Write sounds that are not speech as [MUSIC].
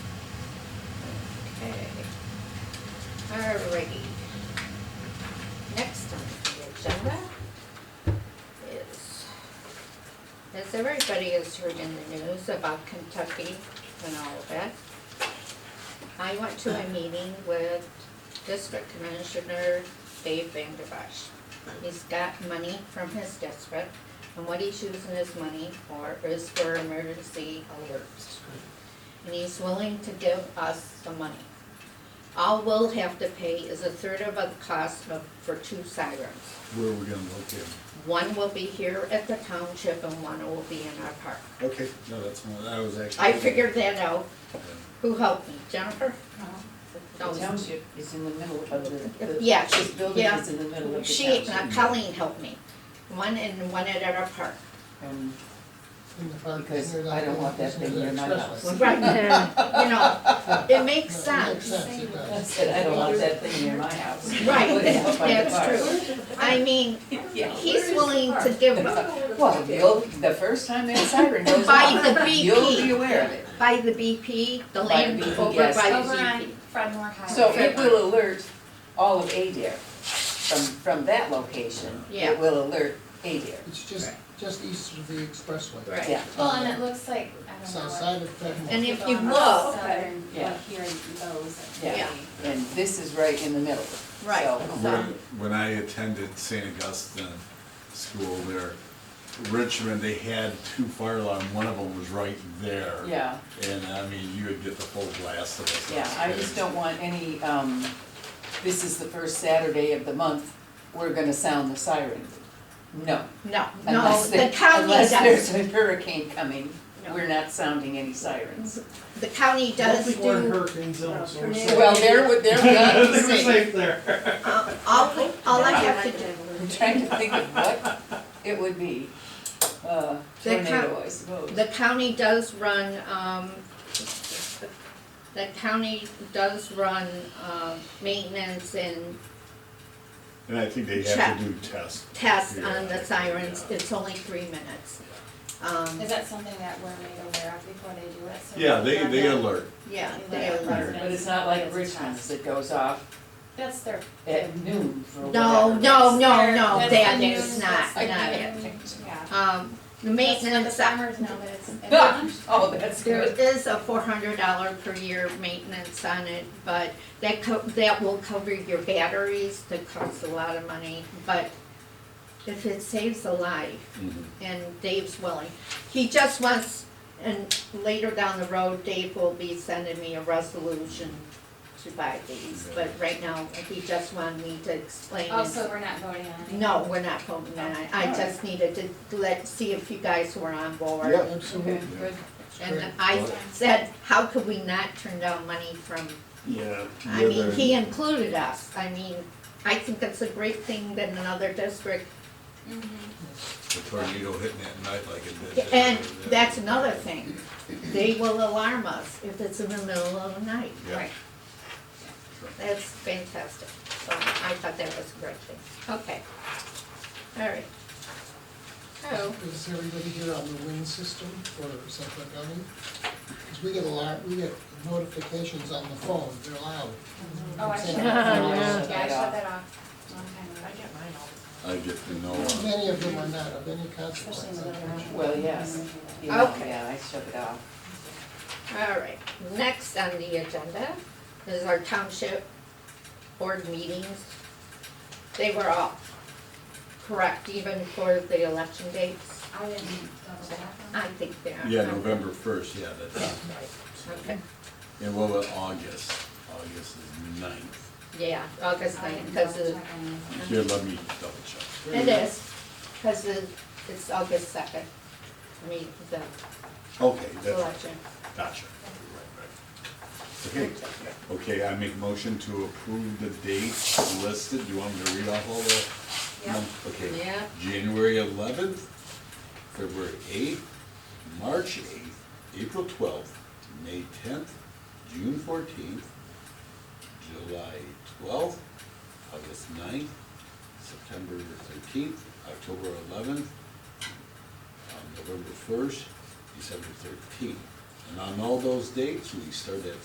Okay. Alrighty. Next on the agenda is, as everybody has heard in the news about Kentucky and all of that, I went to a meeting with District Commissioner Dave Van Der Bosch. He's got money from his district, and what he's using his money for is for emergency alerts. And he's willing to give us the money. All we'll have to pay is a third of the cost of, for two sirens. Where are we gonna locate them? One will be here at the township and one will be in our park. Okay, no, that's, not- I was actually. I figured that out. Yeah. Who helped me? Jennifer? Uh, The township is in the middle of the, the. Yeah, This building yeah. is in the middle of the She, uh, township. Colleen helped me. One and one at our park. Um, in the park. Because I don't want that thing near my house. Right, you know, it makes Makes sense. sense, it I does. said, I don't want that thing near my house. [LAUGHS] Right, Put it out by the that's true. I mean, bar. [LAUGHS] Yeah. he's willing to give up Well, you'll, the first time that siren goes by off, the [LAUGHS] you'll be BP, aware of it. by the BP, the By land the BP, over yes. by the Over on BP. Fredmore Highway. So it will alert all of Adair from, from that location. Yeah. It will alert Adair. It's just, just east of the expressway. Right. Yeah. Well, and it looks like, I don't know. South what- side of Fenimore. And if you on the look- Southern, Yeah. like here in those. Yeah. Yeah. And this is right in the middle. Right. So- um, So- When, when I attended St. Augustine School there, Richmond, they had two fire alarm, one of them was right there. Yeah. And I mean, you would get the full blast of it. Yeah, I just don't want any, um, this is the first Saturday of the month, we're gonna sound the siren. No. No, no, unless the there- county Unless does, there's a hurricane coming, No. we're not sounding any sirens. the county does do. uh, Before hurricane zone, so we're safe. Well, there would, there would We're [LAUGHS] be safe. safe there. Uh, All, all I have to do, I'm trying to think of what it would be. Uh, The coun- tornado, I suppose. the county does run, um, the county does run, um, maintenance and And I think they have Check. to do tests. tests on the Yeah. sirens, it's only three minutes. Um, Is that something that we're made aware of before they do it? So Yeah, they, they that- alert. yeah, we they let alert. residents But it's not like know it's Richmond's passed. that goes off That's their. at noon for No, whatever. no, no, Their- no, that's that the is news not, that's not like it. given, Yeah. Um, the That's what the maintenance, Ah! farmers know that it's. it's lunch. [LAUGHS] Oh, that's there good. is a four hundred dollar per year maintenance on it, but that co- that will cover your batteries, that costs a lot of money, but if it saves a life, Mhm. and Dave's willing, he just wants, and later down the road, Dave will be sending me a resolution to buy these, but right now, he just wanted me to explain. and Also, Oh, we're not voting on it. No, we're not voting on it, I just needed to let, see if you guys were on board. Yeah. Absolutely. Good. And I said, how could we not turn down money from, Yeah. I Yeah, mean, they're- he included us, I mean, I think it's a great thing that another district, Mm-hmm. The tornado hitting at night like it did. and there. that's another thing. They will alarm us if it's in the middle of the night. Yeah. Right. That's fantastic, so I thought that was a great thing, okay. All right. So, Is everybody here on the wind system for Central County? Because we get a lot, we get notifications on the phone, they're loud. Oh, I shut Yeah, that off. yeah. Yeah, I shut that off a long time ago. I get to know. uh, Many of them are not of any consequence, unfortunately. Well, yes. Yeah, Mm-hmm. Okay. Yeah, I shut it off. All right, next on the agenda is our township board meetings. They were all correct even for the election dates. I didn't double check on I think they are. Yeah, November first, yeah, that's, Okay, and what about August? August is ninth. yeah, it. August I ninth, didn't because double it check on it. Here, let me double check. is, because it's August second, I mean, the Okay, that's, election. gotcha. Right, right. Okay, okay, I make motion to approve the dates listed, do you want me to read off all the? Yep. month? Okay. Yeah. January eleventh, February eighth, March eighth, April twelfth, May tenth, June fourteenth, July twelfth, August 9th, September thirteenth, October eleventh, um, November first, December thirteenth. And on all those dates, we start at